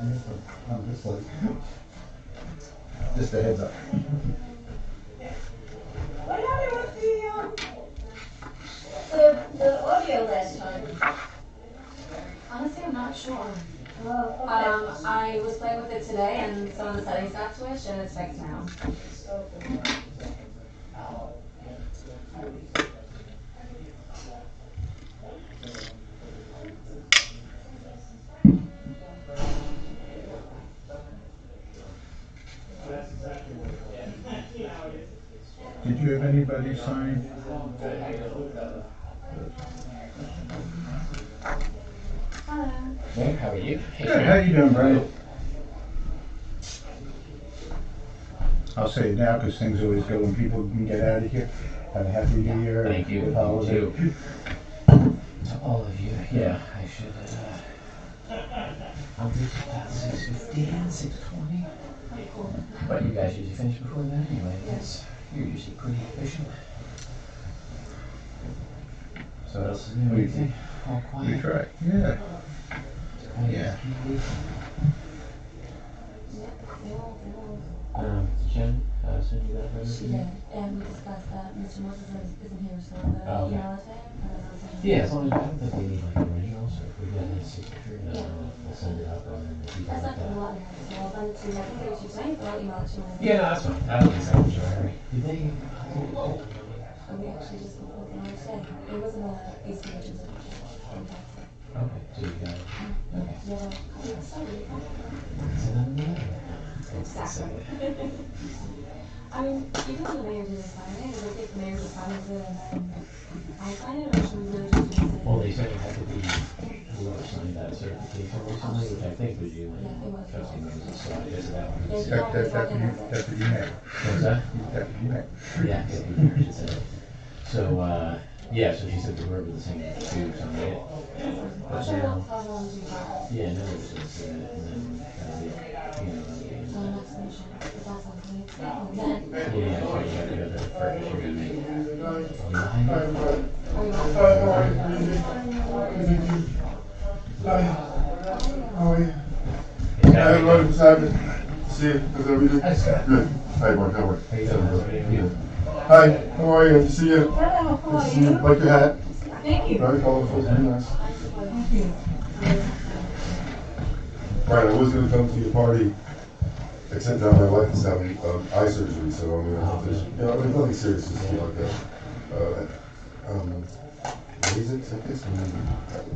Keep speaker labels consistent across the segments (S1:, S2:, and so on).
S1: I'm just like, just a heads up.
S2: What happened with the, um, the, Uh, the audio last time?
S3: Honestly, I'm not sure.
S2: Oh,
S3: Um, I was playing with it today and some of the settings got switched and it's fixed now.
S2: okay.
S1: Did you have anybody sign?
S3: Hello.
S4: Hey, how are you? Hey,
S1: Good, how you doing, Brian? I'll say it now, because things always go when people can get out of here. Have a happy new year. and
S4: Thank you,
S1: good
S4: you
S1: holiday.
S4: too. To all of you, yeah, I should, uh, I'll be about six fifteen, six twenty. But you guys usually finish before that anyway, yes, you're usually pretty efficient. So what else is new,
S1: We-
S4: anything? All
S1: We
S4: quiet?
S1: try, yeah.
S4: Quiet
S1: yeah.
S4: as can be. Um, Jen, uh, send you that
S3: She
S4: resume?
S3: did, and we discussed that Mr. Moses is- isn't here, so the
S4: Oh, okay.
S3: email is there. and I'll send it.
S4: Yeah, as long as I don't think we need like originals, or if we got any signature, then I'll- I'll send it up and then if you
S3: That's
S4: got
S3: not
S4: that.
S3: gonna lot, so I'll send it to you. I think it was you tonight, but I'll email it to you.
S4: Yeah, no, that's fine. That was I'm sorry. Did they? Oh,
S3: And we actually just looked at it today. It wasn't a AC agent. Yeah,
S4: okay. So you got it. Okay.
S3: sorry.
S4: So then we have it.
S3: Exactly. I mean, even when the mayor did sign it, I think the mayor just signs it and then I sign it, or should we really just? use it?
S4: Well, they said it had to be whoever signed that certification recently, which I think was you
S3: Yeah, it
S4: and
S3: was.
S4: trustee Moses. So I guess that one.
S3: There's
S4: was-
S1: That, that, that, that's what you meant.
S4: What's that?
S1: That's what you meant.
S4: Yeah. it was yours, it said. So, uh, yeah, so she said the word was the same as you, so I made it. But
S3: So I'll
S4: now,
S3: tell them to do that.
S4: yeah, no, it was just, uh, and then, uh, you know, uh,
S3: So the next motion, is that something that's happening then?
S4: Yeah, I thought you had to go to the first, you're gonna make. Nine,
S3: Or you want-
S4: yeah,
S5: Everybody beside me. See you. How's everything?
S4: Hi, Scott.
S5: Good. Hi, Mark. How are you?
S4: how you doing, How are you?
S5: Hi. How are you? Good to see you.
S2: Hello, how
S5: Good
S2: are
S5: to see you.
S2: you?
S5: Like your hat.
S2: Thank you.
S5: Very colorful. Very nice.
S2: Thank you.
S5: Right. I was gonna come to your party, except now my wife is having um, eye surgery, so I'm gonna have to. You know, I mean, nothing serious. Just feel like a, uh, um, lasers, I guess.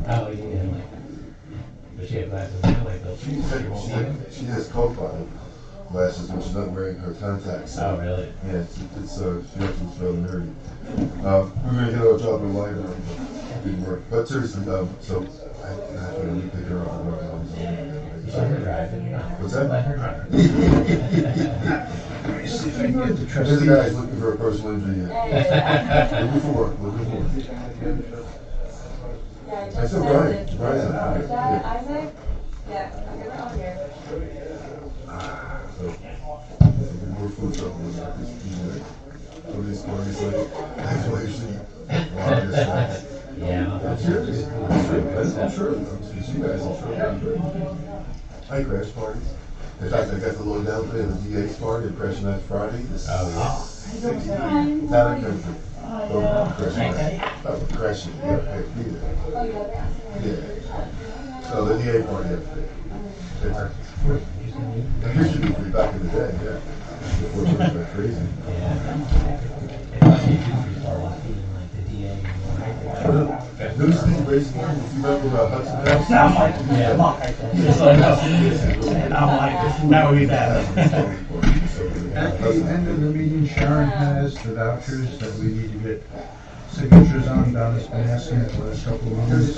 S4: Oh, you did, like, but she had glasses now, like, those.
S5: She, she, she has profile lashes when she's not wearing her contacts.
S4: Oh, really?
S5: Yeah, it's, it's uh, she actually was rather nerdy. Um, we were gonna hit our job in line, but it didn't work. But seriously, um, so I, I have to really pick her up and work on
S4: Just let her
S5: something.
S4: drive it.
S5: What's
S4: Let
S5: that?
S4: her drive.
S1: See if I can get the
S5: There's a
S1: trustee.
S5: guy who's looking for a personal injury. Yeah. Looking for work, looking for work.
S2: Yeah, I
S5: I
S2: just
S5: said
S2: sent
S5: Brian,
S2: it.
S5: Brian's out.
S2: Is that
S5: Yeah.
S2: Isaac? Yeah, I'm gonna call here.
S5: So, more food truck was like this. Somebody's going, he's like, that's why you should. Wow, this nice.
S4: Yeah. I'll
S5: I'm
S4: have
S5: sure, I'm
S4: to-
S5: sure, I'm sure, I'm sure, you guys are sure. I crash parties. In fact, I got the little announcement in the DA's party, crashing that Friday. This
S4: Oh,
S5: is not a country. Oh, crash party. Oh, crashing, yeah, I agree there.
S3: Oh, you got that?
S5: Yeah. So the DA party up there. It's-
S4: yeah.
S5: It used to be free back in the day, yeah. Before it went crazy.
S4: Yeah. If you do start walking, like, the DA,
S5: Who's the racing, if you remember uh, Hudson House? Sound like,
S4: Yeah.
S6: That would be bad.
S1: At the end of the meeting, Sharon has the vouchers that we need to get signatures on. Donna's been asking for the last couple of months.